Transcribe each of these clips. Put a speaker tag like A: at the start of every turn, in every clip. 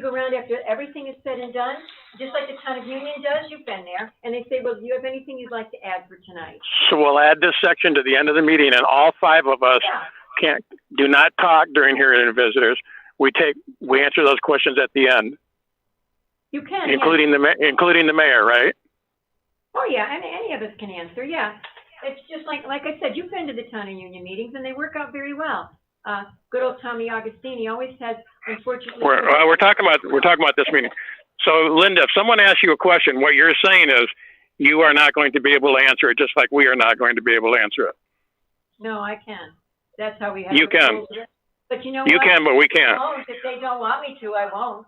A: go around after everything is said and done, just like the town of Union does, you've been there, and they say, well, do you have anything you'd like to add for tonight?
B: So we'll add this section to the end of the meeting, and all five of us
A: Yeah,
B: can't, do not talk during hearing of visitors. We take, we answer those questions at the end,
A: you can, yeah.
B: including the, ma- including the mayor, right?
A: Oh, yeah, and any of us can answer, yeah. It's just like, like I said, you've been to the town and union meetings, and they work out very well. Uh, good old Tommy Augustini always has, unfortunately.
B: We're, uh, we're talking about, we're talking about this meeting. So Linda, if someone asks you a question, what you're saying is you are not going to be able to answer it, just like we are not going to be able to answer it.
A: No, I can. That's how we have.
B: You
A: it.
B: can.
A: But you know what?
B: You can, but we can't.
A: Oh, if they don't want me to, I won't.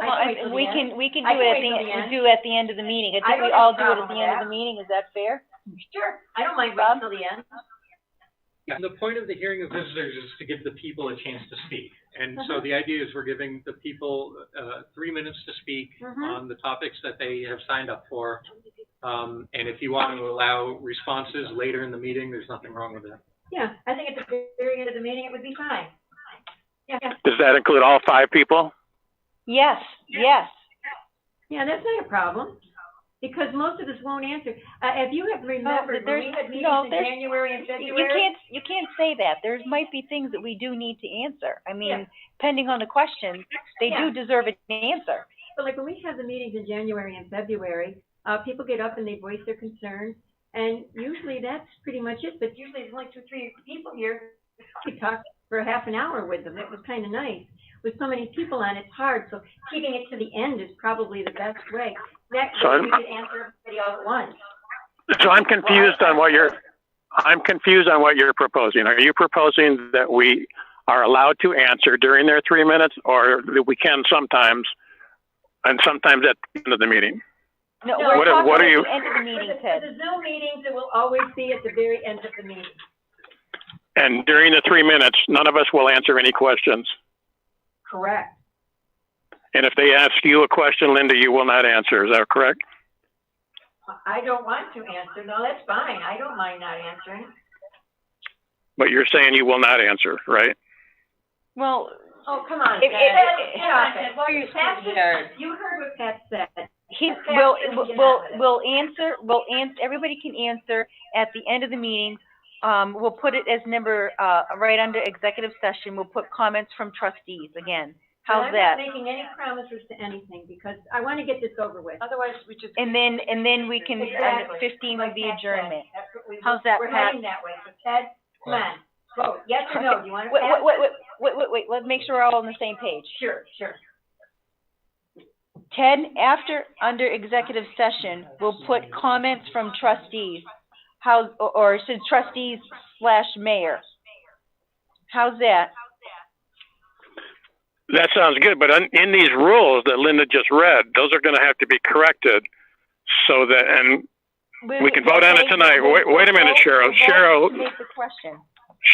A: I can wait till the
C: Well, I, we
A: end.
C: can, we can
A: I
C: do
A: can
C: it
A: wait
C: at
A: till the end.
C: the, do it at the end of the meeting. I
A: I
C: think we
A: don't have a
C: all do
A: problem
C: it at the
A: with
C: end
A: that.
C: of the meeting. Is that fair?
A: Sure, I don't mind waiting till the end.
D: Yeah, the point of the hearing of visitors is to give the people a chance to speak. And
C: Mm-hmm.
D: so the idea is we're giving the people, uh, three minutes to speak
C: Mm-hmm.
A: Mhm.
D: on the topics that they have signed up for. Um, and if you want to allow responses later in the meeting, there's nothing wrong with that.
A: Yeah, I think at the very end of the meeting, it would be fine. Yeah, yeah.
B: Does that include all five people?
C: Yes, yes.
A: yeah, that's not a problem, because most of us won't answer. Uh, if you have remembered, when
C: there's-
A: we had meetings
C: no,
A: in
C: there's-
A: January and
C: You
A: February.
C: you can't, you can't say that. There might be things that we do need to answer. I
A: Yeah.
C: mean, depending on the question, they
A: Yeah.
C: do deserve an answer.
A: But like when we have the meetings in January and February, uh, people get up and they voice their concerns, and usually that's pretty much it, but usually there's only two, three people here. We talk for half an hour with them, it was kinda nice. With so many people on, it's hard, so keeping it to the end is probably the best way. That
B: So
A: way
B: I'm-
A: we could answer everybody all at once.
B: So I'm confused on what you're, I'm confused on what you're proposing. Are you proposing that we are allowed to answer during their three minutes or that we can sometimes and sometimes at the end of the meeting?
C: No,
A: No.
C: we're
A: What
B: are-
C: talking
B: what
C: about
B: are you-
C: the end of the
A: For
C: meeting,
A: the, for
C: Ted.
A: the Zoom meetings, it will always be at the very end of the meeting.
B: And during the three minutes, none of us will answer any questions.
A: Correct.
B: And if they ask you a question, Linda, you will not answer. Is that correct?
A: I don't want to answer, no, that's fine, I don't mind not answering.
B: But you're saying you will not answer, right?
C: Well,
A: Oh, come on,
C: If-
A: Pat.
C: if- if-
A: Stop it. Pat just- You heard what Pat said.
C: he,
A: Okay,
C: will,
A: I'm gonna
C: will,
A: get
C: will,
A: out of it.
C: will answer, will ans, everybody can answer at the end of the meeting. Um, we'll put it as number, uh, right under executive session. We'll put comments from trustees again. How's
A: And I'm
C: that?
A: not making any promises to anything because I want to get this over with. Otherwise, we just.
C: And then, and then we can, and
A: Exactly.
C: fifteen would
A: Like
C: be
A: Pat said,
C: adjournment.
A: that's what we-
C: How's that,
A: We're
C: Pat?
A: heading that way. So Ted, come on, vote, yes or no, do you want to
C: Wait,
A: pass?
C: wait, wait, wait, wait, wait, let's make sure we're all on the same page.
A: Sure, sure.
C: Ted, after, under executive session, we'll put comments from trustees. How, or- or should trustees slash mayor. How's that?
B: That sounds good, but in, in these rules that Linda just read, those are going to have to be corrected so that, and We can vote on it tonight. Wait- wait a minute, Cheryl.
C: Vote to
B: Cheryl-
C: Make the question.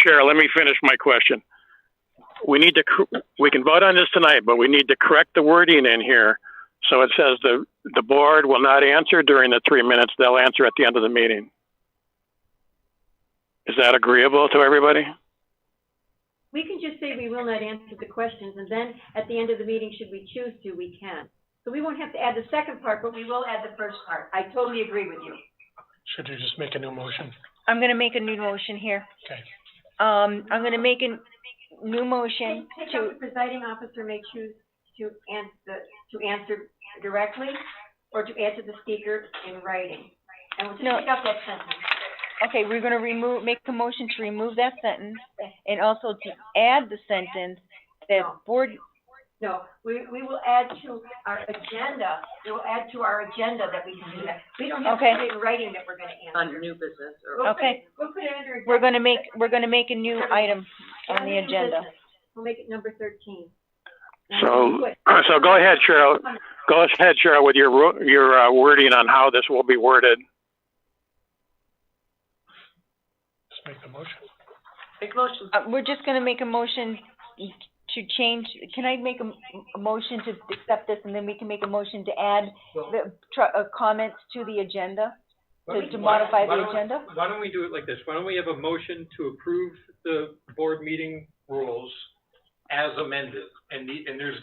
B: Cheryl, let me finish my question. We need to, cor- we can vote on this tonight, but we need to correct the wording in here. So it says the, the board will not answer during the three minutes, they'll answer at the end of the meeting. Is that agreeable to everybody?
A: We can just say we will not answer the questions and then at the end of the meeting, should we choose to, we can. So we won't have to add the second part, but we will add the first part. I totally agree with you.
E: Should you just make a new motion?
C: I'm gonna make a new motion here.
E: Okay.
C: Um, I'm gonna make a new motion
A: Pick pick
C: to,
A: up the presiding officer may choose to answer, to answer directly or to answer the speaker in writing. And we'll just
C: No.
A: pick up that sentence.
C: okay, we're gonna remove, make a motion to remove that sentence and also to add the sentence that board,
A: No, we, we will add to our agenda, we will add to our agenda that we can do that. We don't have to
C: Okay.
A: put it in writing that we're gonna answer.
F: under new business or
A: We'll put it-
C: Okay.
A: We'll put it under.
C: we're gonna make, we're gonna make a new item on the
A: under new
C: agenda.
A: business. We'll make it number thirteen.
B: So, so go ahead, Cheryl. Go ahead, Cheryl, with your, ru- your uh, wording on how this will be worded.
E: Just make the motion.
F: big motion.
C: Uh, we're just gonna make a motion to change, can I make a, m- a motion to accept this and then we can make a motion to add the, tr uh, comments to the agenda?
D: Why don't
C: To- to
D: we- why-
C: modify the
D: why don't-
C: agenda?
D: Why don't we do it like this? Why don't we have a motion to approve the board meeting rules as amended? And the, and there's